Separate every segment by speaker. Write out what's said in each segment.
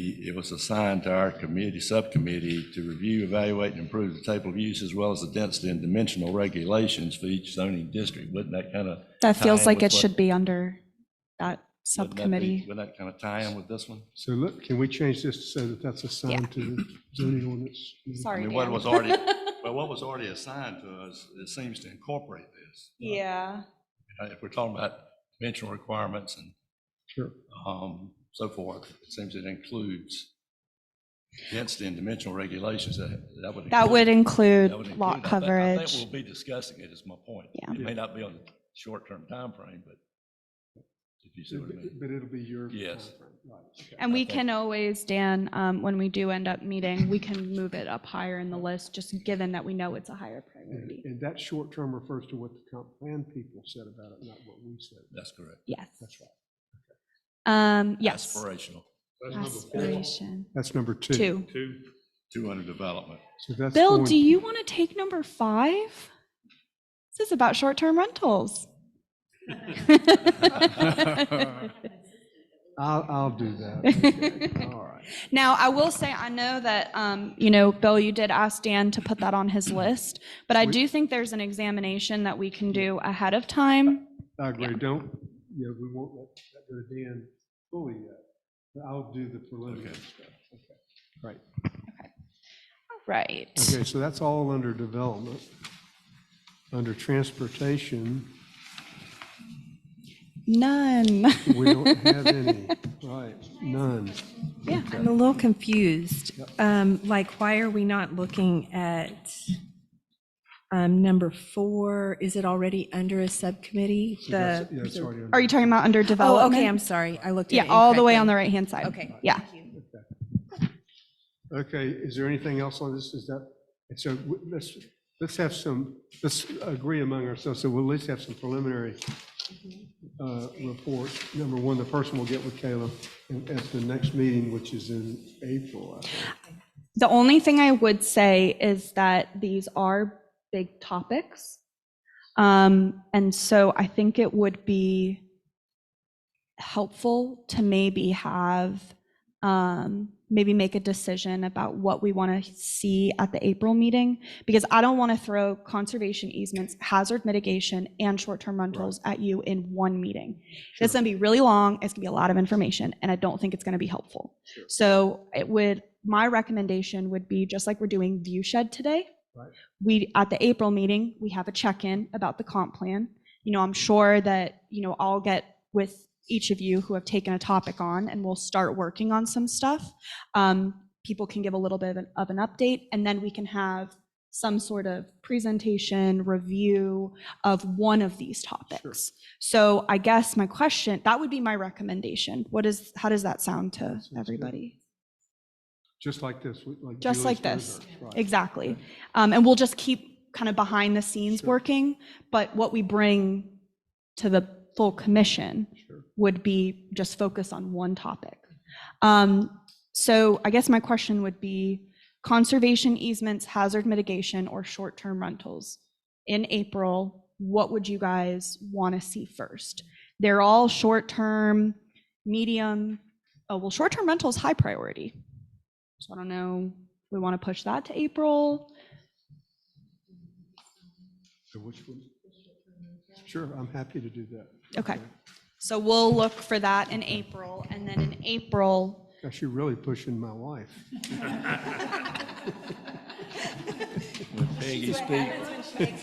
Speaker 1: committee, it was assigned to our committee, subcommittee, to review, evaluate, and improve the table of use as well as the density and dimensional regulations for each zoning district. Wouldn't that kind of?
Speaker 2: That feels
Speaker 1: time
Speaker 2: like
Speaker 1: with
Speaker 2: it
Speaker 1: what-
Speaker 2: should be under that subcommittee.
Speaker 1: Wouldn't that kind of tie in with this one?
Speaker 3: So look, can we change this to say that that's assigned to the zoning ordinance?
Speaker 1: I
Speaker 2: Sorry,
Speaker 1: mean, what
Speaker 2: Dan.
Speaker 1: was already, uh, well, what was already assigned to us, it seems to incorporate this.
Speaker 2: Yeah,
Speaker 1: Uh, If we're talking about dimensional requirements and
Speaker 3: Sure.
Speaker 1: um, so forth, it seems it includes density and dimensional regulations that, that would.
Speaker 2: that would
Speaker 1: include-
Speaker 2: include
Speaker 1: that would include- I
Speaker 2: lot
Speaker 1: think- I think
Speaker 2: coverage.
Speaker 1: we'll be discussing it is my point.
Speaker 2: Yeah.
Speaker 1: It may not be on the short-term time frame, but if you see what I mean.
Speaker 3: But it'll be your.
Speaker 1: Yes.
Speaker 3: timeframe, right, okay.
Speaker 2: And
Speaker 1: I
Speaker 2: we
Speaker 1: think-
Speaker 2: can always, Dan, um, when we do end up meeting, we can move it up higher in the list, just given that we know it's a higher
Speaker 3: And
Speaker 2: priority.
Speaker 3: and that short term refers to what the comp plan people said about it, not what we said.
Speaker 1: That's correct.
Speaker 2: Yes.
Speaker 3: That's right.
Speaker 2: Um, yes.
Speaker 1: Aspirational,
Speaker 2: Aspiration.
Speaker 3: That's number two.
Speaker 2: Two.
Speaker 1: two under development.
Speaker 3: So that's
Speaker 2: Bill,
Speaker 3: going-
Speaker 2: do you want to take number five? This is about short-term rentals.
Speaker 3: I'll, I'll do that. Okay, All right.
Speaker 2: Now, I will say, I know that, um, you know, Bill, you did ask Dan to put that on his list, but I
Speaker 3: We-
Speaker 2: do think there's an examination that we can do ahead of time.
Speaker 3: I agree. Don't, yeah, we won't let that go to Dan fully yet. But I'll do the preliminary
Speaker 1: Okay.
Speaker 3: stuff. Okay.
Speaker 2: Right.
Speaker 3: Okay, so that's all under development. Under transportation,
Speaker 2: None.
Speaker 3: we don't have any, right, none.
Speaker 2: Yeah.
Speaker 4: I'm a little confused. Um, Like, why are we not looking at um, number four? Is it already under a subcommittee?
Speaker 3: So
Speaker 4: The,
Speaker 3: that's- yeah, it's already under-
Speaker 2: Are you talking about under
Speaker 4: oh,
Speaker 2: development?
Speaker 4: okay, I'm sorry. I looked at it
Speaker 2: Yeah, all the way on the
Speaker 4: incorrectly.
Speaker 2: right-hand side.
Speaker 4: Okay.
Speaker 2: Yeah.
Speaker 4: thank you.
Speaker 3: Okay, is there anything else on this? Is that, and so w- let's, let's have some, let's agree among ourselves, so we'll at least have some preliminary uh, report. Number one, the person will get with Caleb in- at the next meeting, which is in April, I think.
Speaker 2: The only thing I would say is that these are big topics. Um, and so I think it would be helpful to maybe have, um, maybe make a decision about what we want to see at the April meeting. Because I don't want to throw conservation easements, hazard mitigation, and short-term rentals at you in one meeting. It's going to be really long. It's going to be a lot of information, and I don't think it's going to be helpful. So it would, my recommendation would be, just like we're doing view shed today,
Speaker 3: Right.
Speaker 2: we, at the April meeting, we have a check-in about the comp plan. You know, I'm sure that, you know, I'll get with each of you who have taken a topic on, and we'll start working on some stuff. Um, People can give a little bit of an, of an update, and then we can have some sort of presentation, review of one of these topics. So I guess my question, that would be my recommendation. What is, how does that sound to
Speaker 3: Sounds good.
Speaker 2: everybody?
Speaker 3: just like this. we-
Speaker 2: Just
Speaker 3: Julie's
Speaker 2: like
Speaker 3: done
Speaker 2: this.
Speaker 3: hers, right.
Speaker 2: Exactly. Um, And we'll just keep kind of behind the scenes
Speaker 3: Sure.
Speaker 2: working, but what we bring to the full commission
Speaker 3: Sure.
Speaker 2: would be just focus on one topic. Um, So I guess my question would be conservation easements, hazard mitigation, or short-term rentals. In April, what would you guys want to see first? They're all short-term, medium, oh, well, short-term rental is high priority. So I don't know, we want to push that to April?
Speaker 3: So which one? Sure, I'm happy to do that.
Speaker 2: Okay. So we'll look for that in April, and then in April,
Speaker 3: Gosh, you're really pushing my wife.
Speaker 1: When Peggy speaks.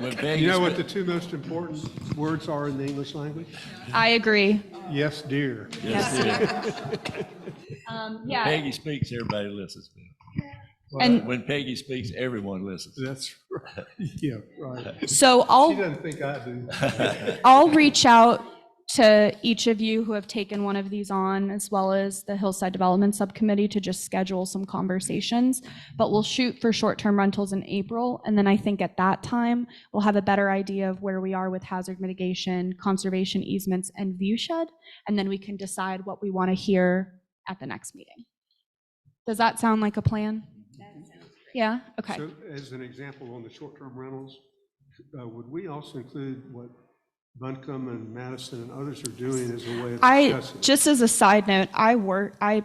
Speaker 1: When Peggy
Speaker 3: You know what the
Speaker 1: speak-
Speaker 3: two most important words are in the English language?
Speaker 2: I agree.
Speaker 3: Yes, dear.
Speaker 2: Um,
Speaker 1: when
Speaker 2: yeah,
Speaker 1: Peggy speaks, everybody listens.
Speaker 2: and
Speaker 1: When Peggy speaks, everyone listens.
Speaker 3: That's right. Yeah, right.
Speaker 2: so
Speaker 3: She
Speaker 2: I'll,
Speaker 3: doesn't think I do.
Speaker 2: I'll reach out to each of you who have taken one of these on, as well as the Hillside Development Subcommittee, to just schedule some conversations. But we'll shoot for short-term rentals in April, and then I think at that time, we'll have a better idea of where we are with hazard mitigation, conservation easements, and view shed, and then we can decide what we want to hear at the next meeting. Does that sound like a plan? Yeah, okay.
Speaker 3: So as an example, on the short-term rentals, uh, would we also include what Buncombe and Madison and others are doing as a way of
Speaker 2: I,
Speaker 3: discussing?
Speaker 2: just as a side note, I work, I